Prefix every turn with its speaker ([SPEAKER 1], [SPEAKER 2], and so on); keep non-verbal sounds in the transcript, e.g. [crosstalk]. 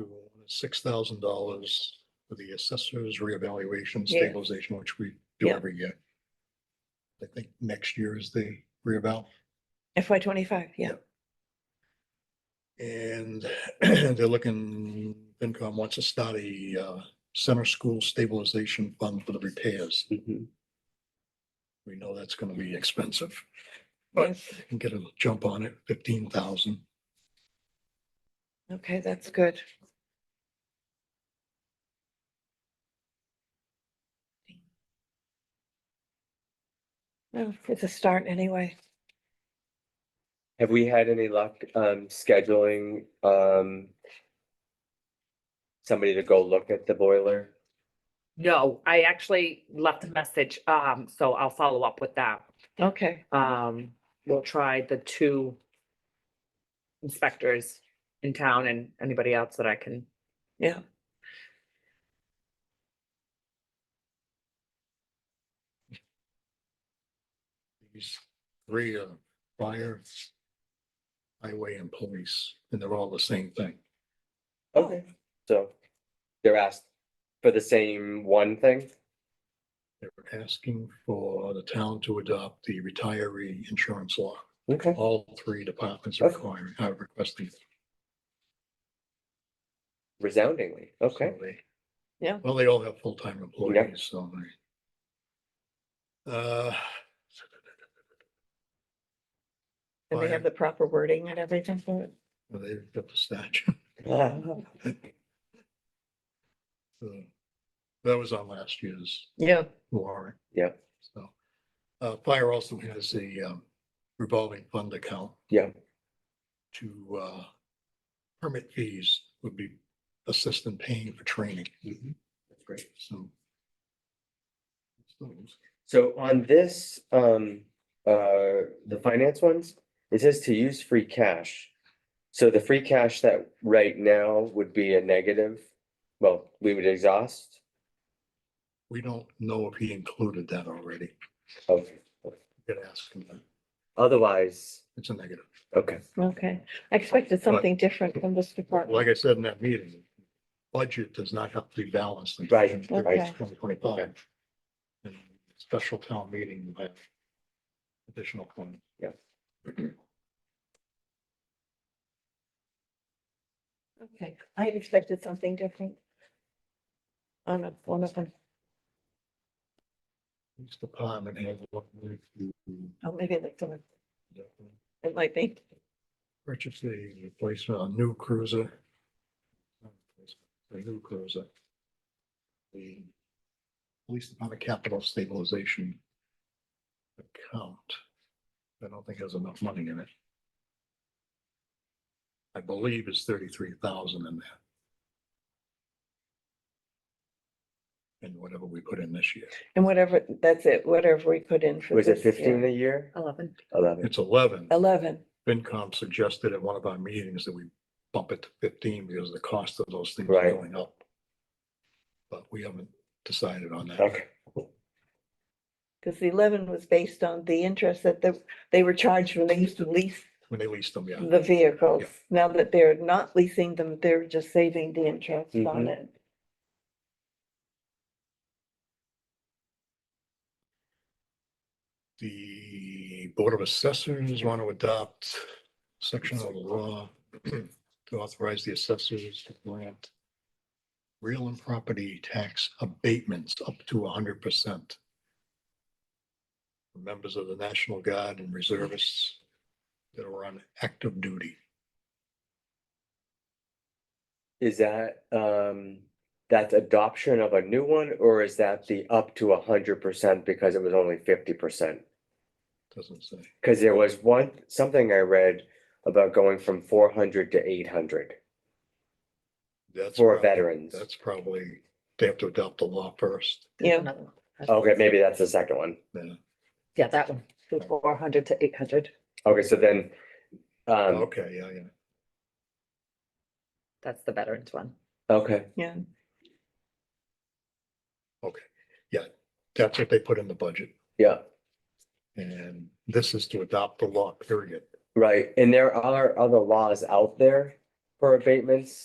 [SPEAKER 1] uh, six thousand dollars for the assessor's reevaluation
[SPEAKER 2] Yeah.
[SPEAKER 1] stabilization, which we do
[SPEAKER 2] Yeah.
[SPEAKER 1] every year. I think next year is the reeval.
[SPEAKER 2] FY twenty-five, yeah.
[SPEAKER 1] And [clears throat] they're looking, FinCom wants to start a uh, center school stabilization fund for the repairs.
[SPEAKER 3] Mhm.
[SPEAKER 1] We know that's gonna be expensive. But-
[SPEAKER 2] Yes.
[SPEAKER 1] Can get a jump on it, fifteen thousand.
[SPEAKER 2] Okay, that's good. Well, it's a start anyway.
[SPEAKER 3] Have we had any luck, um, scheduling, um, somebody to go look at the boiler?
[SPEAKER 4] No, I actually left a message, um, so I'll follow up with that.
[SPEAKER 2] Okay,
[SPEAKER 4] Um, we'll try the two inspectors in town and anybody else that I can.
[SPEAKER 2] yeah.
[SPEAKER 1] These three are fire, highway and police, and they're all the same thing.
[SPEAKER 2] Oh.
[SPEAKER 3] Okay, so they're asked for the same one thing?
[SPEAKER 1] They're asking for the town to adopt the retiree insurance law.
[SPEAKER 3] Okay.
[SPEAKER 1] All three departments are
[SPEAKER 3] Okay.
[SPEAKER 1] requiring, uh, are requesting.
[SPEAKER 3] Resoundingly, okay.
[SPEAKER 1] [laughs] So they-
[SPEAKER 2] Yeah.
[SPEAKER 1] Well, they all have full-time employees, so. they- Uh,
[SPEAKER 2] And they have
[SPEAKER 1] Fire.
[SPEAKER 2] the proper wording and everything for it.
[SPEAKER 1] they've got the statute. [laughs] so That was on last year's
[SPEAKER 2] Yeah,
[SPEAKER 1] warrant.
[SPEAKER 3] Yeah.
[SPEAKER 1] So, uh, fire also has a um, revolving fund account.
[SPEAKER 3] Yeah.
[SPEAKER 1] To, uh, permit fees would be assistant paying for training,
[SPEAKER 3] Mm-hmm. That's great.
[SPEAKER 1] so. so
[SPEAKER 3] So on this, um, uh, the finance ones, it says to use free cash. So the free cash that right now would be a negative, well, we would exhaust.
[SPEAKER 1] We don't know if he included that already.
[SPEAKER 3] Okay.
[SPEAKER 1] Could ask him that.
[SPEAKER 3] Otherwise,
[SPEAKER 1] It's a negative.
[SPEAKER 3] okay,
[SPEAKER 2] okay. I expected something different from this department.
[SPEAKER 1] Like I said in that meeting, budget does not have to be balanced. in
[SPEAKER 3] Right,
[SPEAKER 2] right.
[SPEAKER 1] Twenty twenty-five. And special town meeting will have additional point.
[SPEAKER 3] Yeah.
[SPEAKER 2] Okay, I had expected something different. On a, one of them,
[SPEAKER 1] Each department has what we do.
[SPEAKER 2] oh, maybe like someone, it might be.
[SPEAKER 1] Purchase a replacement, a new cruiser. A new cruiser. The police department capital stabilization account. I don't think has enough money in it. I believe it's thirty-three thousand in there. And whatever we put in this year,
[SPEAKER 2] And whatever, that's it, whatever we put in for
[SPEAKER 3] was it
[SPEAKER 2] this
[SPEAKER 3] fifteen
[SPEAKER 1] Oh,
[SPEAKER 2] year.
[SPEAKER 3] a year?
[SPEAKER 4] Eleven.
[SPEAKER 3] Eleven,
[SPEAKER 1] it's eleven.
[SPEAKER 2] Eleven,
[SPEAKER 1] FinCom suggested at one of our meetings that we bump it to fifteen because the cost of those things are
[SPEAKER 3] Right.
[SPEAKER 1] going up. But we haven't decided on that.
[SPEAKER 3] okay,
[SPEAKER 2] because the eleven was based on the interest that the, they were charged when they used to lease
[SPEAKER 1] When they lease them, yeah.
[SPEAKER 2] the vehicles. Now that they're not leasing them, they're just saving the interest on
[SPEAKER 3] Mhm.
[SPEAKER 2] it.
[SPEAKER 1] The Board of Assessors want to adopt section of the law [clears throat] to authorize the assessors to grant real and property tax abatements up to hundred percent. Members of the National Guard and reservists that are on active duty.
[SPEAKER 3] is that, um, that's adoption of a new one, or is that the up to a hundred percent because it was only fifty percent?
[SPEAKER 1] Doesn't say.
[SPEAKER 3] Cause there was one, something I read about going from four hundred to eight hundred
[SPEAKER 1] That's
[SPEAKER 3] for
[SPEAKER 1] probably-
[SPEAKER 3] veterans.
[SPEAKER 1] That's probably, they have to adopt the law first.
[SPEAKER 2] Yeah.
[SPEAKER 3] Okay, maybe that's the second one.
[SPEAKER 1] then-
[SPEAKER 4] Yeah, that one, four hundred to eight hundred.
[SPEAKER 3] Okay, so then, um,
[SPEAKER 1] Okay, yeah, yeah.
[SPEAKER 4] That's the veterans one.
[SPEAKER 1] Oh.
[SPEAKER 3] okay,
[SPEAKER 2] Yeah,
[SPEAKER 1] That's what they put in the budget.
[SPEAKER 3] yeah,
[SPEAKER 1] And this is to adopt the law, period.
[SPEAKER 3] right. And there are other laws out there for abatements.